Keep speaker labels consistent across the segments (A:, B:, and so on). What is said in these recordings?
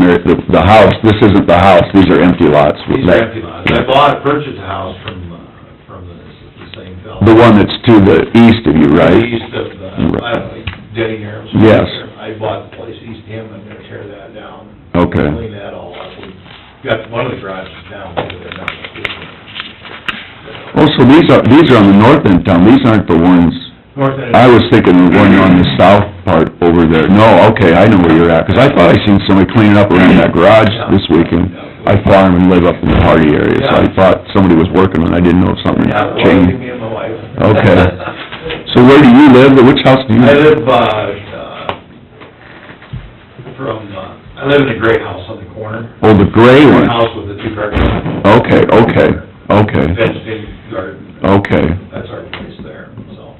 A: the, the house, this isn't the house, these are empty lots.
B: These are empty lots. I bought, purchased a house from, uh, from the, the same fellow.
A: The one that's to the east of you, right?
B: East of, the- uh, I don't know, Denny Harris.
A: Yes.
B: I bought the place east of him, I'm gonna tear that down.
A: Okay.
B: Clean that all up. We got one of the garages down, but they're not using it.
A: Oh, so these are, these are on the north end of town, these aren't the ones,
B: North end.
A: I was thinking the one on the south part over there. No, okay, I know where you're at, 'cause I thought I seen somebody cleaning up around that garage this weekend. I farm and live up in the Hardy area, so I thought somebody was working on it, I didn't know if something
B: Yeah,
A: had
B: well, it'd be
A: changed.
B: me and my wife.
A: Okay. So where do you live, which house do you?
B: I live, uh, uh, from, uh, I live in a gray house on the corner.
A: Oh, the gray one,
B: Gray house with the two car garage.
A: okay, okay, okay,
B: Vegetated garden.
A: okay.
B: That's our place there, so.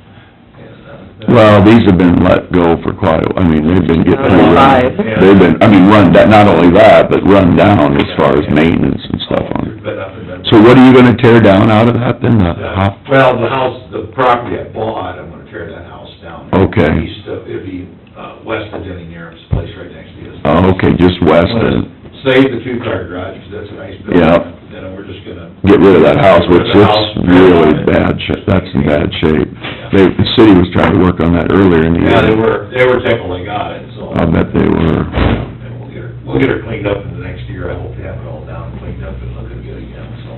B: and, uh,
A: Well, these have been let go for quite a, I mean, they've been getting pretty
C: Five.
A: run. They've been, I mean, run, da- not only that, but run down as far as maintenance and stuff on it.
B: But up in that-
A: So what are you gonna tear down out of that then, the
B: Uh,
A: hop?
B: Well, the house, the property I bought, I'm gonna tear that house down.
A: Okay.
B: East of, it'd be, uh, west of Denny Naren's place, right next to his.
A: Oh, okay, just west and
B: Save the two-car garage, 'cause that's a nice building.
A: Yeah.
B: Then we're just gonna,
A: get rid of that house, which
B: Rid of the
A: it's
B: house.
A: really bad shape, that's in bad shape. They, the city was trying to work on that earlier in the year.
B: yeah, they were, they were tickled they got it, so.
A: I bet they were.
B: And we'll get her, we'll get her cleaned up in the next year, I hope to have it all down, and cleaned up and looking good again, so.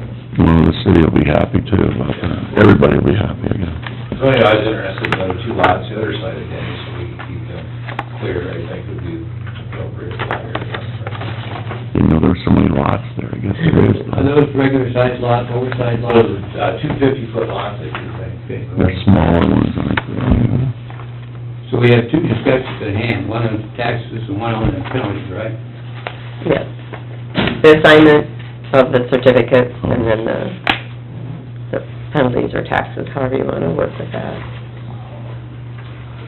A: Well, the city will be happy too about that. Everybody will be happy, I guess.
B: So anyway, Oh, I was interested in the other two lots, the other side of Denny, so we can keep them clear, I think would be appropriate for that area.
A: Didn't know there were so many lots there, I guess there is.
C: Are those regular sized lots, oversized
B: Those
C: lots?
B: are, uh, two fifty-foot lots, I think.
A: They're smaller ones, aren't they?
C: So we have two discussions at hand, one on taxes and one on the penalties, right?
D: Yes. The assignment of the certificates and then the the penalties or taxes, however you wanna work with that.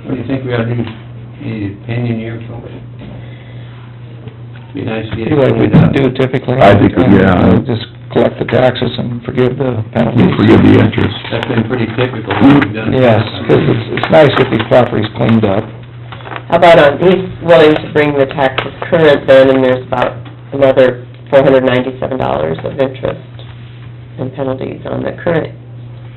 C: What do you think we ought to do, any opinion here from it? Be nice to get it
E: Do like we
C: cleaned up.
E: do typically.
A: I think, yeah.
E: Just collect the taxes and forgive the
A: You
E: penalties.
A: forgive the interest.
C: That's been pretty typical, what we've done.
E: Yes, 'cause it's, it's nice if these properties cleaned up.
D: How about on, he's willing to bring the taxes current then, and there's about another four hundred ninety-seven dollars of interest and penalties on the current.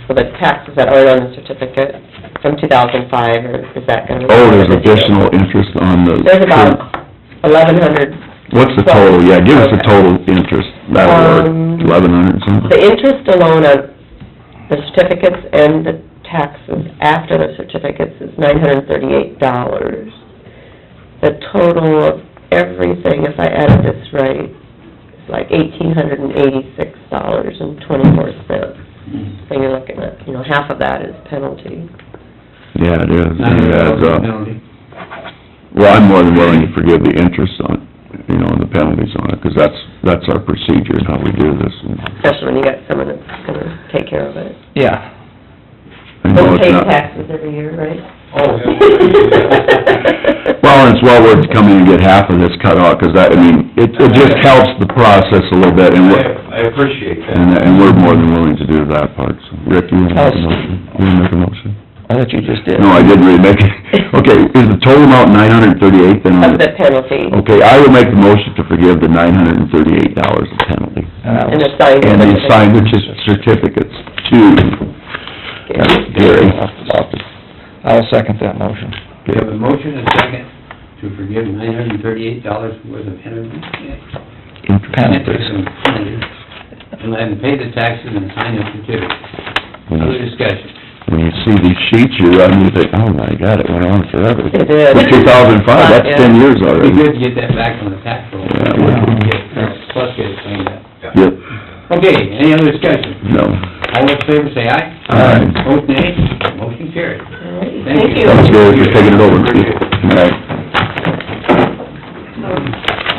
D: So the taxes that are on the certificate from two thousand five, or is that gonna?
A: Oh, there's additional interest on the...
D: There's about eleven hundred
A: What's the total? Yeah, give us the total interest. That'll work.
D: Um,
A: Eleven hundred
D: The
A: something?
D: interest alone on the certificates and the taxes after the certificates is nine hundred and thirty-eight dollars. The total of everything, if I added this right, is like eighteen hundred and eighty-six dollars and twenty-four cents. So you're looking at, you know, half of that is penalty.
A: Yeah, it is.
C: Not
A: It
C: a
A: adds up.
C: penalty.
A: Well, I'm more than willing to forgive the interest on, it, you know, and the penalties on it, 'cause that's, that's our procedure, and how we do this. And
D: Especially when you got someone that's gonna take care of it.
E: Yeah.
A: I know
D: Don't
A: it's
D: pay
A: not-
D: taxes every year, right?
B: Oh, yeah.
A: Well, and it's well worth coming and get half of this cut off, 'cause that, I mean, it, it just helps the process a little bit, and
B: I,
A: what,
B: I appreciate
A: And,
B: that.
A: and we're more than willing to do that part, so. Rick, you wanna make a motion?
D: Oh.
A: You wanna make a motion?
E: I thought you just did.
A: No, I didn't really make it. Okay, is the total amount nine hundred and thirty-eight then?
D: Of the penalty
A: Okay, I will make the motion to forgive the nine hundred and thirty-eight dollars of penalty.
E: And that
D: and
E: was-
D: assigned.
A: And the assigned certificates to Gary.
E: I'll second that motion.
C: We have a motion and a second to forgive nine hundred and thirty-eight dollars worth of penalty. Penalties and penalties. And then pay the taxes and sign the certificate. Other discussion.
A: When you see these sheets you run, you think, oh my God, it went on forever.
D: It did.
A: Two thousand five, that's ten years
C: It'd be
A: already.
C: good to get that back on the tax roll.
A: Yeah, it would.
C: Get- Plus get it cleaned up.
A: Yep,
C: Okay, any other discussion?
A: no.
C: All in favor, say aye.
A: Aye.
C: Vote nay. Motion carried.
D: Thank you.
A: That's good, you're taking it over.
C: Appreciate it.
A: All right.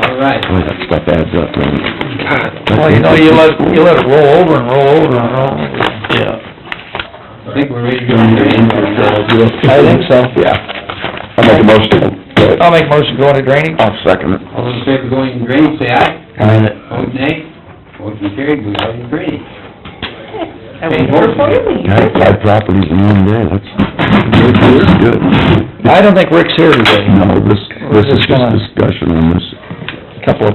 C: All right.
A: Boy, that stuff adds up, man.
E: Well, you know, you let, you let it roll over and roll over and roll over. Yeah.
C: I think we're ready to go. All
E: I think so.
A: Yeah. I make a motion.
E: I'll make motion go into drainage.
A: I'll second it.
C: in favor going in green, say aye.
A: Aye.
C: Vote nay. Motion carried, we go in green.
D: I waited for you.
A: Yeah, five properties in one day, that's, that's good.
E: I don't think Rick's here today.
A: No, this, this is just
E: Just gonna-
A: discussion on this.
E: Couple of